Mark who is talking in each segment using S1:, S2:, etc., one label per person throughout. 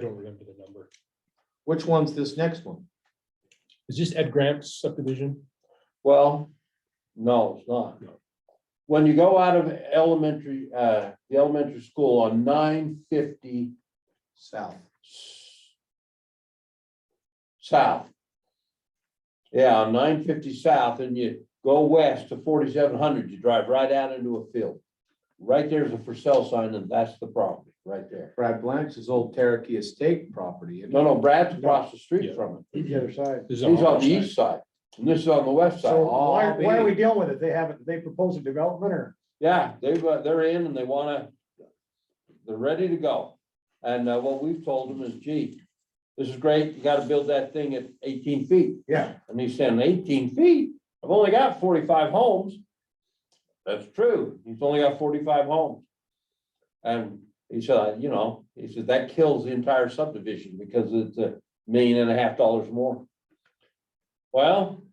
S1: don't remember the number.
S2: Which one's this next one?
S1: Is this Ed Grant's subdivision?
S3: Well, no, it's not.
S1: No.
S3: When you go out of elementary, uh, the elementary school on nine fifty
S2: South.
S3: south. Yeah, on nine fifty south and you go west to forty-seven hundred, you drive right out into a field. Right there's a for sale sign and that's the property, right there.
S2: Brad Blanch's old Cherokee Estate property.
S3: No, no, Brad's across the street
S1: Yeah.
S3: from it.
S4: The other side.
S1: This is
S3: He's on the
S1: our
S3: east side and this is on the
S4: So
S3: west side. Oh,
S4: why,
S2: all
S4: why are
S2: big.
S4: we dealing with it? They haven't, they proposed a development or?
S3: Yeah, they've, uh, they're in and they wanna, they're ready to go. And uh, what we've told them is, gee, this is great, you gotta build that thing at eighteen feet.
S4: Yeah.
S3: And he's saying eighteen feet, I've only got forty-five homes. That's true, he's only got forty-five homes. And he said, you know, he said that kills the entire subdivision because it's a million and a half dollars more. Well,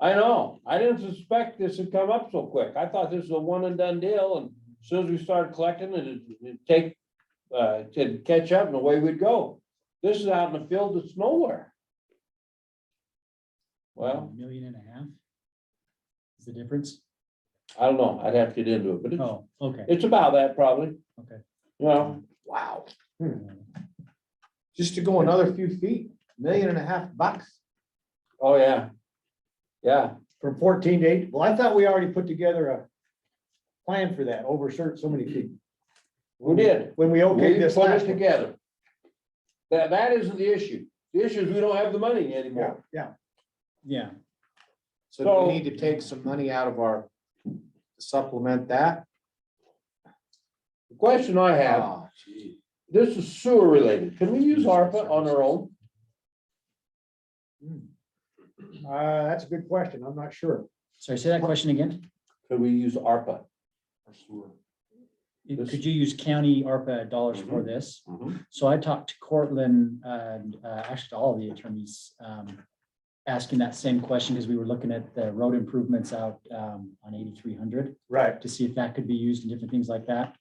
S3: I know, I didn't suspect this would come up so quick, I thought this was a one and done deal, and as soon as we started collecting it, it- it'd take, uh, to catch up and away we'd go. This is out in the field that's nowhere. Well.
S5: Million and a half? Is the difference?
S3: I don't know, I'd have to get into it, but it's,
S5: Oh, okay.
S3: it's about that probably.
S5: Okay.
S3: You know,
S2: Wow.
S1: Hmm.
S2: Just to go another few feet, million and a half bucks.
S3: oh, yeah. Yeah,
S4: From fourteen to eight, well, I thought we already put together a plan for that over certain, so many feet.
S3: we did.
S4: When we
S3: We
S4: okayed this
S3: put
S4: last
S3: it
S4: one.
S3: together. That, that isn't the issue. The issue is we don't have the money
S4: Yeah,
S3: anymore.
S4: yeah.
S5: Yeah,
S2: So do
S3: So-
S2: we need to take some money out of our supplement that?
S3: The question I have,
S2: Ah, gee.
S3: this is sewer related. Can we use ARPA on our own?
S4: Uh, that's a good question. I'm not sure.
S5: sorry, say that question again.
S3: Could we use ARPA? This-
S5: Could you use county ARPA dollars for this?
S3: Mhm.
S5: So I talked to Cortland and uh, actually to all of the attorneys, um, asking that same question because we were looking at the road improvements out um, on eighty-three hundred
S4: Right.
S5: to see if that could be used in different things like that.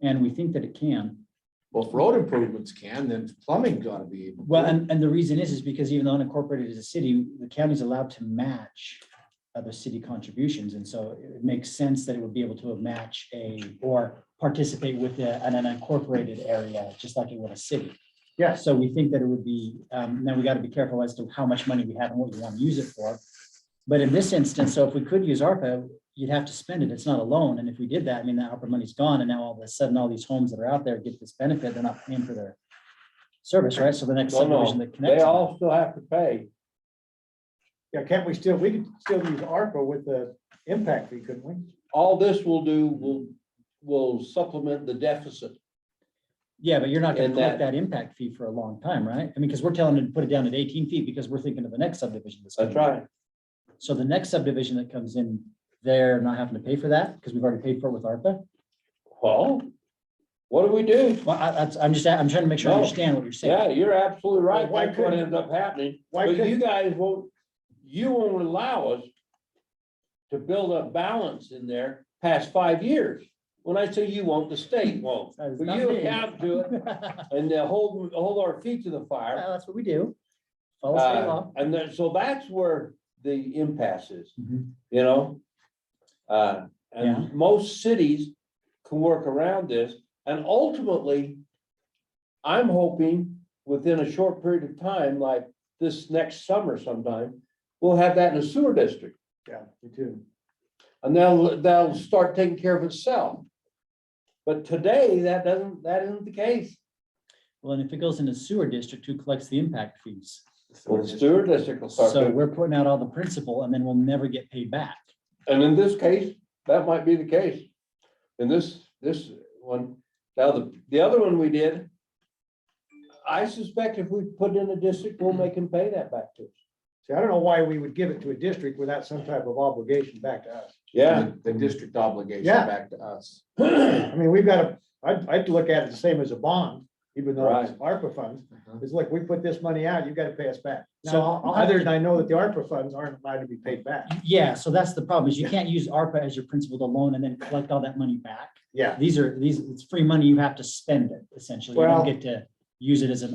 S5: And we think that it can.
S2: Well, if road improvements can, then plumbing gotta be. able to.
S5: Well, and, and the reason is, is because even though unincorporated is a city, the county's allowed to match other city contributions, and so it makes sense that it would be able to match a, or participate with a- an unincorporated area, just like it would a city.
S4: Yeah.
S5: So we think that it would be, um, now we gotta be careful as to how much money we have and what we wanna use it for. But in this instance, so if we could use ARPA, you'd have to spend it, it's not a loan, and if we did that, I mean, that ARPA money's gone, and now all of a sudden, all these homes that are out there get this benefit, they're not paying for their service, right? So the next
S3: No,
S5: subdivision
S3: no,
S5: that
S3: they
S5: connects.
S3: all still have to pay.
S4: Yeah, can't we still, we could still use ARPA with the impact fee, couldn't we?
S3: All this will do will, will supplement the deficit.
S5: Yeah, but you're not gonna
S3: And
S5: collect that impact fee for a long time, right? I mean, because we're telling them to put it down at eighteen feet because we're thinking of the next subdivision.
S3: That's
S5: coming in.
S3: right.
S5: So the next subdivision that comes in, they're not having to pay for that because we've already paid for it with ARPA.
S3: Well, what do we do?
S5: Well, I, that's, I'm just, I'm trying to make sure I
S3: No.
S5: understand what you're
S3: Yeah,
S5: saying.
S3: you're absolutely right.
S4: why
S3: That's what
S4: couldn't-
S3: ends up happening.
S4: why
S3: But you
S4: couldn't-
S3: guys won't, you won't allow us to build a balance in there past five years. When I say you won't, the state won't.
S5: That is
S3: But
S5: not
S3: you
S5: me.
S3: account to it
S5: Well,
S3: and they'll hold, hold our feet to the fire.
S5: That's what we do. Follow state
S3: Uh,
S5: law.
S3: And then, so that's where the impasse is,
S5: Mhm.
S3: you know? Uh,
S5: Yeah.
S3: and most cities can work around this and ultimately, I'm hoping within a short period of time, like this next summer sometime, we'll have that in the sewer district.
S4: Yeah, me too.
S3: And that'll, that'll start taking care of itself. But today, that doesn't, that isn't the case.
S5: Well, and if it goes in a sewer district, who collects the impact fees?
S3: Well, the sewer district will start,
S5: So
S3: doing-
S5: we're putting out all the principal and then we'll never get paid back.
S3: and in this case, that might be the case. In this, this one, now the, the other one we did. I suspect if we put in a district, we'll make them pay that back to us.
S4: See, I don't know why we would give it to a district without some type of obligation back to us.
S3: Yeah,
S2: The- The district obligation
S4: Yeah.
S2: back to us.
S4: I mean, we've got to, I'd, I'd look at it the same as a bond, even though it's ARPA funds.
S2: Uh-huh.
S4: It's like, we put this money out, you've got to pay us back.
S5: So
S4: Now,
S5: I'll- I'll have
S4: other
S5: to-
S4: than I know that the ARPA funds aren't allowed to be paid back.
S5: Yeah, so that's the problem is you can't use ARPA as your principal to loan and then collect all that money back.
S4: Yeah.
S5: These are, these, it's free money. You have to spend it essentially. You
S4: Well-
S5: don't get to use it as an